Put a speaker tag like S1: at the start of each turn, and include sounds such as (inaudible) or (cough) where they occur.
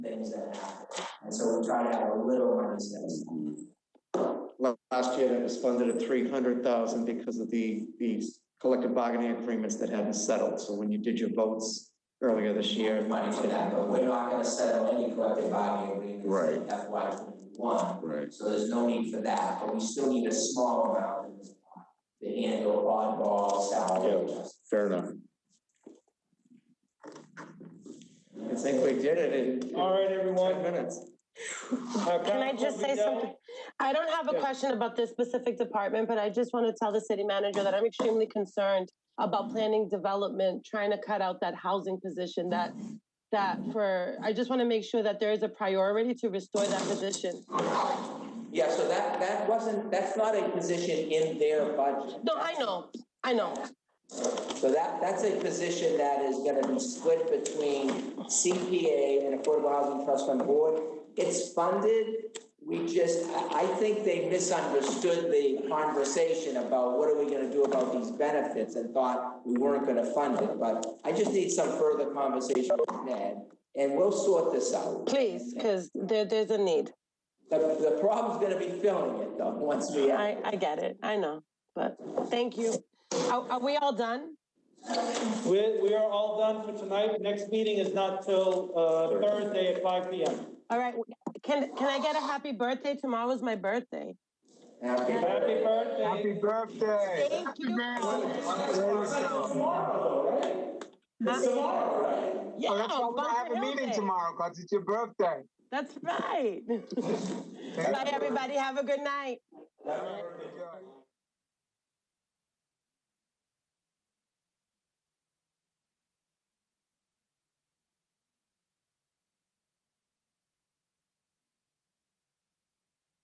S1: things that happen. And so we try to have a little money set aside.
S2: La- Last year, that was funded at three hundred thousand because of the, the collective bargaining agreements that hadn't settled. So when you did your votes earlier this year.
S1: money for that, but we're not gonna settle any collective bargaining agreements in FY twenty-one.
S3: Right.
S1: So there's no need for that, but we still need a small amount in this pot to handle oddball salary adjustments.
S3: Fair enough.
S2: I think we did it in.
S4: All right, everyone.
S2: Five minutes.
S4: Can
S5: Can I just say something? I don't have a question about this specific department, but I just want to tell the city manager that I'm extremely concerned about planning development, trying to cut out that housing position that, that for, I just want to make sure that there is a priority to restore that position.
S1: Yeah, so that, that wasn't, that's not a position in their budget.
S5: No, I know, I know.
S1: So that, that's a position that is gonna be split between CPA and Affordable Housing Trust Fund Board. It's funded, we just, I, I think they misunderstood the conversation about what are we gonna do about these benefits and thought we weren't gonna fund it, but I just need some further conversation with Ned, and we'll sort this out.
S5: Please, because there, there's a need.
S1: The, the problem's gonna be filling it though, once we.
S5: I, I get it, I know, but thank you. Are, are we all done?
S4: We, we are all done for tonight. Next meeting is not till, uh, Thursday at five P M.
S5: All right, can, can I get a happy birthday? Tomorrow's my birthday.
S1: Happy
S4: Happy birthday.
S6: Happy birthday.
S5: Thank you. Yeah,
S6: Oh, that's why we're gonna
S5: bump
S6: have a
S5: your
S6: meeting
S5: head.
S6: tomorrow, cause it's your birthday.
S5: (laughs) That's right. Bye, everybody. Have a good night.
S6: Enjoy.